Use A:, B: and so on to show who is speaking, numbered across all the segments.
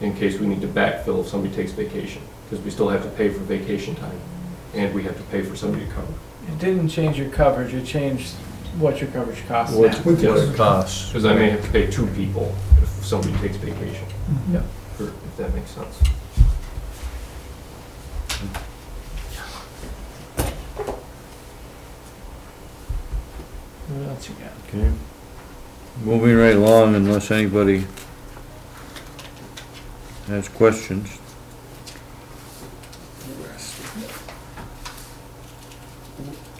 A: in case we need to backfill if somebody takes vacation, because we still have to pay for vacation time, and we have to pay for somebody to cover.
B: It didn't change your coverage, it changed what your coverage costs
A: What-
B: now.
C: With
A: Yes.
C: the-
D: What it costs.
A: Because I may have to pay two people if somebody takes vacation,
B: Yeah.
A: or if that makes sense.
B: What else you got?
D: Okay. Moving right along unless anybody has questions.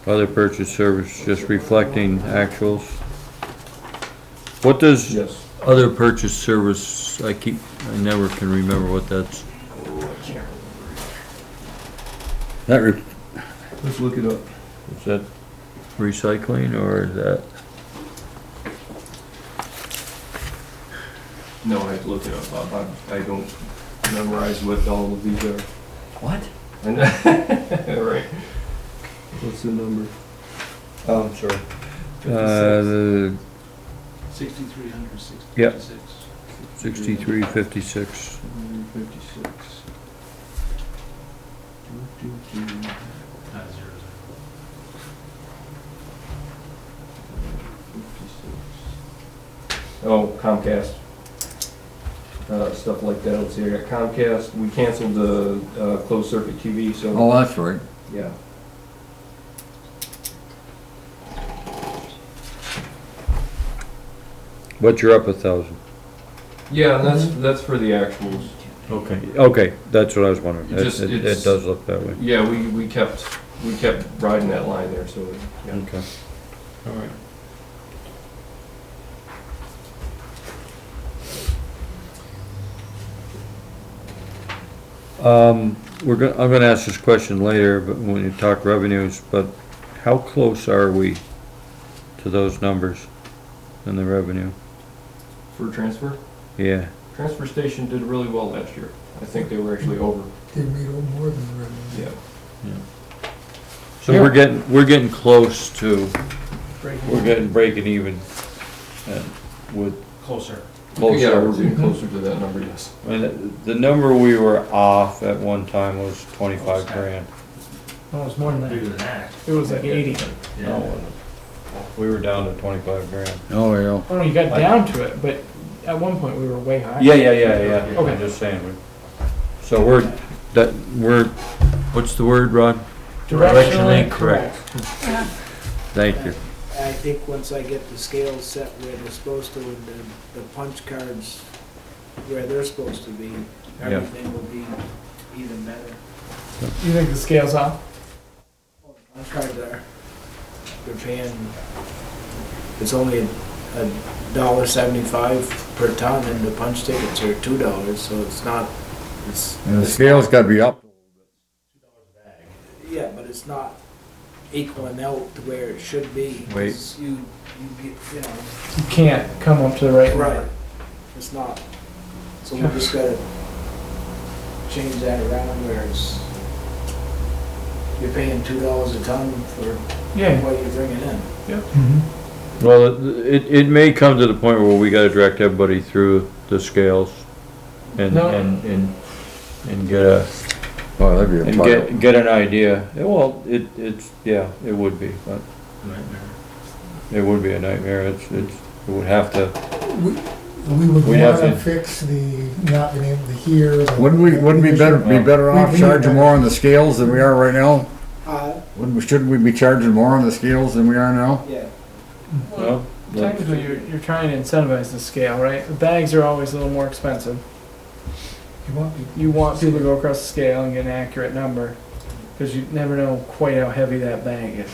D: Other purchase service, just reflecting actuals. What does
A: Yes.
D: other purchase service, I keep, I never can remember what that's. That, re-
C: Let's look it up.
D: is that recycling or is that?
A: No, I have to look it up, Bob. I I don't memorize what all of these are.
D: What?
A: I know. Right.
C: What's the number?
D: Oh,
A: Um,
D: I'm sorry. Uh, the
C: Sixty-three hundred sixty-six.
D: Yep. Sixty-three fifty-six.
C: Fifty-six. Do, do, do. Fifty-six.
A: Oh, Comcast. Uh, stuff like that, let's see, I got Comcast, we canceled the, uh, closed circuit TV, so,
D: Oh, that's right.
A: yeah.
D: But you're up a thousand.
A: Yeah, and
D: Mm-hmm.
A: that's, that's for the actuals.
D: Okay. Okay, that's what I was wondering.
A: It
D: It,
A: just-
D: it- it
A: it's-
D: does look that way.
A: Yeah, we, we kept, we kept riding that line there, so, yeah.
D: Okay. All right. Um, we're gonna, I'm gonna ask this question later, but when you talk revenues, but how close are we to those numbers in the revenue?
A: For transfer,
D: Yeah.
A: transfer station did really well last year. I think they were actually over,
C: They made a little more than the revenue.
A: yeah.
D: So we're getting, we're getting close to,
B: Breaking
D: we're
B: down.
D: getting breaking even uh, with
E: Closer.
A: Yeah,
D: closer.
A: we're getting closer to that number, yes.
D: And the number we were off at one time was twenty-five grand.
B: No, Oh, it was more than that.
E: than that.
B: It was like eighty.
D: No, it wasn't. We were down to twenty-five grand.
F: Oh, yeah.
B: Oh, no, you got down to it, but at one point we were way higher.
D: Yeah, yeah, yeah, yeah.
B: Okay.
D: I'm just saying. we- So we're, that, we're, what's the word, Rod?
B: Directionally
D: Directionally
B: correct.
D: Thank you.
G: I think once I get the scales set where they're supposed to, and the, the punch cards where they're supposed to be,
D: Yeah.
G: everything will be even better.
B: You think the scale's off?
G: Punch cards are, they're paying, it's only a, a dollar seventy-five per ton, and the punch tickets are two dollars, so it's not, it's,
F: And the scale's gotta be up.
G: yeah, but it's not equaling out to where it should be. 'cause
D: Wait.
G: You, you get, you know.
B: You can't come up to the right.
G: Right, it's not. So we just gotta change that around where it's, you're paying two dollars a ton for
B: Yeah.
G: what you're bringing in.
H: Mm-hmm.
D: Well, it, it may come to the point where we gotta direct everybody through the scales and,
B: No.
D: and, and, and get a,
F: Oh, that'd be a
D: and
F: pile.
D: get, get an idea. Yeah, Well, it, it's, yeah, it would be, but it would be a nightmare. It's, it's, it would have to
H: We would
D: We'd have
H: want to
D: to-
H: fix the not being able to hear. the-
F: Wouldn't we, wouldn't we better, be better
H: We-
F: off
H: we-
F: charging more on the scales than we are right now?
G: Uh,
F: Wouldn't, we- shouldn't we be charging more on the scales than we are now?
G: yeah.
D: Well,
B: Technically, you're, you're trying to incentivize the scale, right? The bags are always a little more expensive.
H: You want me-
B: You want people to go across the scale and get an accurate number, because you never know quite how heavy that bag is.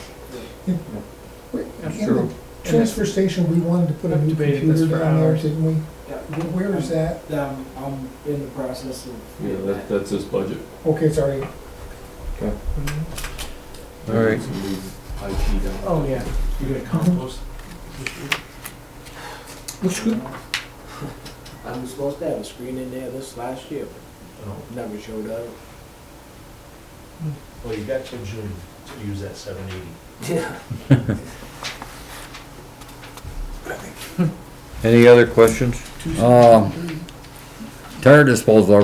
H: wait,
B: That's
H: in
D: true.
H: the Transfer station, we wanted to put a
B: I've
H: new
B: debated this
H: computer
B: for
H: down there,
B: hours.
H: didn't we?
G: yeah.
H: Wh- Where is that?
G: Um, I'm in the process of.
A: Yeah, that, that's his budget.
H: Okay, it's already,
D: All right.
A: IT down.
B: Oh, yeah.
E: You gonna compost?
G: I was supposed to have a screen in there this last year,
E: No.
G: never showed up.
E: Well, you got till June to use that seven eighty.
G: Yeah.
D: Any other questions?
F: Um, Tire disposal, are